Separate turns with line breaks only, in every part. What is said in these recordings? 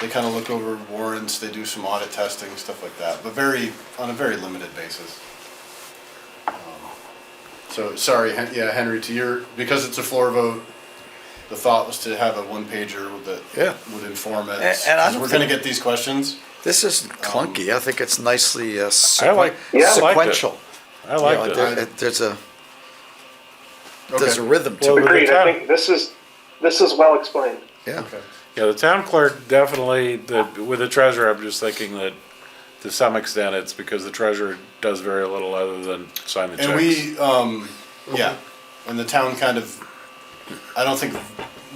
They kind of look over warrants, they do some audit testing, stuff like that, but very, on a very limited basis. Um, So, sorry, Hen- yeah, Henry, to your, because it's a floor vote, the thought was to have a one pager
Yeah.
that would inform it.
A- and I don't
We're gonna
think-
get these questions.
This isn't clunky. I think it's nicely uh,
I like-
sequen-
Yeah. I liked it.
sequential.
I
You know,
like
there-
that.
that.
it- There's a, there's
Okay.
a rhythm to
Well,
it,
the
Agreed, I
town-
think this is, this is well explained.
yeah.
Okay.
Yeah, the town clerk definitely, the, with the treasurer, I'm just thinking that to some extent it's because the treasurer does very little other than sign the checks.
And we, um, yeah, and the town kind of, I don't think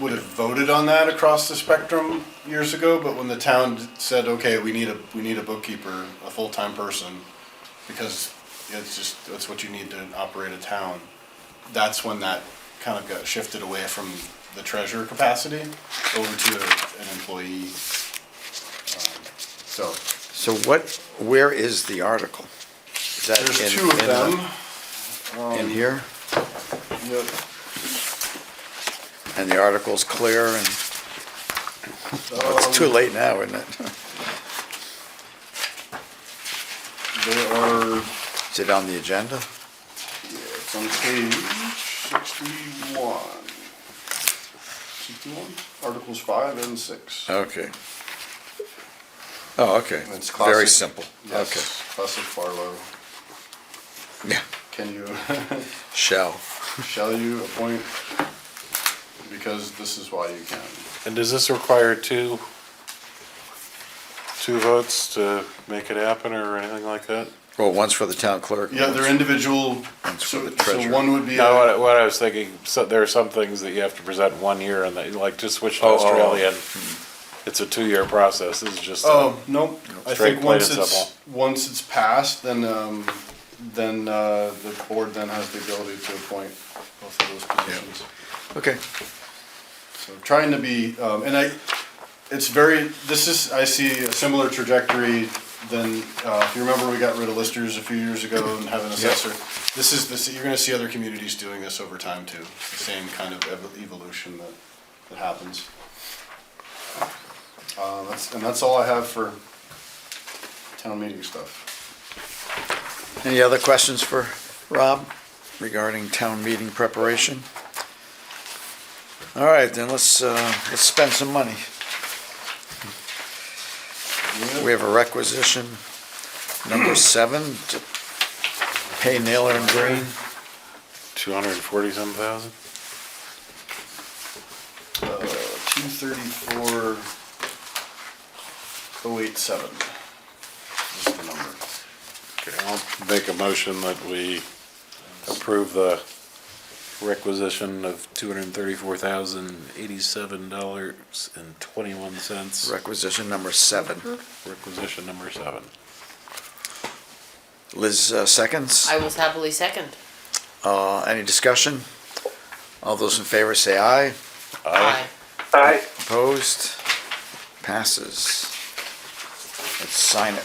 would have voted on that across the spectrum years ago, but when the town said, okay, we need a, we need a bookkeeper, a full-time person, because it's just, that's what you need to operate a town, that's when that kind of got shifted away from the treasurer capacity over to a- an employee. Um, So,
So what, where is the article? Is that
there's
in-
two of
in the-
them, Um,
In here?
Yep.
And the article's clear and, oh, it's too late now, isn't it?
There are
Is it on the agenda?
It's on page sixty-one. Sixty-one, Articles five and six.
Okay. Oh, okay.
It's
Very
classic.
simple. Okay.
Yes, Classic Farlow.
Yeah.
Can you,
Shall.
shall you appoint? Because this is why you can.
And does this require two, two votes to make it happen or anything like that?
Well, one's for the town clerk.
Yeah, they're individual,
That's for
so,
the
so
treasurer.
one would be,
No, what,
a-
I- what I was thinking, so there are some things that you have to present one year and that, like, just switch to
Oh, oh, oh.
Australian. It's a two-year process, this is just. a-
oh, nope. I
Straight,
think
plain
once
and
it's,
simple.
once it's passed, then, um, then, uh, the board then has the ability to appoint both of those positions.
Okay.
So trying to be, um, and I, it's very, this is, I see a similar trajectory than, uh, if you remember, we got rid of listers a few years ago and have an assessor. This is, this, you're gonna see other communities doing this over time too. It's the same kind of ev- evolution that, that happens. Uh, that's, and that's all I have for town meeting stuff.
Any other questions for Rob regarding town meeting preparation? All right, then let's, uh, let's spend some money. We have a requisition, number seven, to pay Naylor and Green.
Two hundred and forty-some thousand?
Uh, two thirty-four, oh eight seven is the number.
Okay, I'll make a motion that we approve the requisition of two hundred and thirty-four thousand, eighty-seven dollars and twenty-one cents.
Requisition number seven.
Requisition number seven.
Liz uh, seconds.
I will happily second.
Uh, any discussion? All those in favor say aye.
Aye.
Aye.
Opposed? Passes. Let's sign it.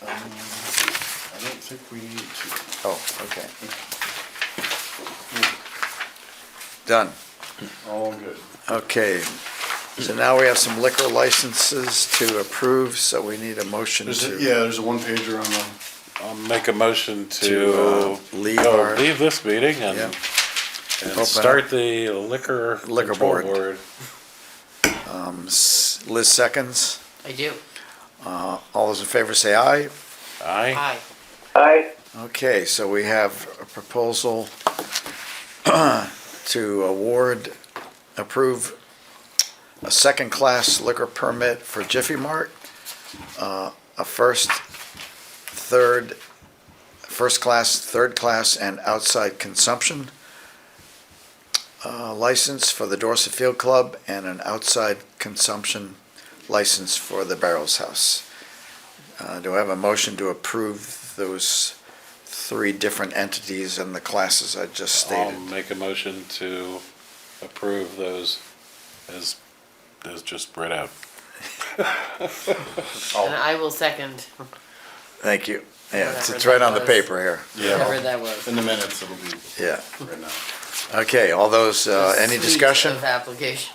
I don't think we need to.
Oh, okay. Done.
All good.
Okay. So now we have some liquor licenses to approve, so we need a motion
There's a,
to.
yeah, there's a one pager on the,
I'll make a motion
To,
to.
uh, leave
oh,
our-
Leave this meeting
Yeah.
and,
Open
and start the liquor.
Liquor
control
board. um, s- Liz seconds.
I do.
Uh, All those in favor say aye.
Aye.
Aye.
Aye.
Okay, so we have a proposal to award, approve a second-class liquor permit for Jiffy Mart, uh, a first, third, first-class, third-class, and outside consumption uh, license for the Dorset Field Club, and an outside consumption license for the Barrels House. Uh, Do I have a motion to approve those three different entities and the classes I just
I'll
stated.
make a motion to approve those as, as just read out.
And I will second,
Thank you. Yeah, it's,
Whatever
it's right on the
that was.
paper here.
whatever that was.
in the minutes, it'll be
Yeah.
right now.
Okay, all those, uh, any
Suite
Uh, discussion?
Of application.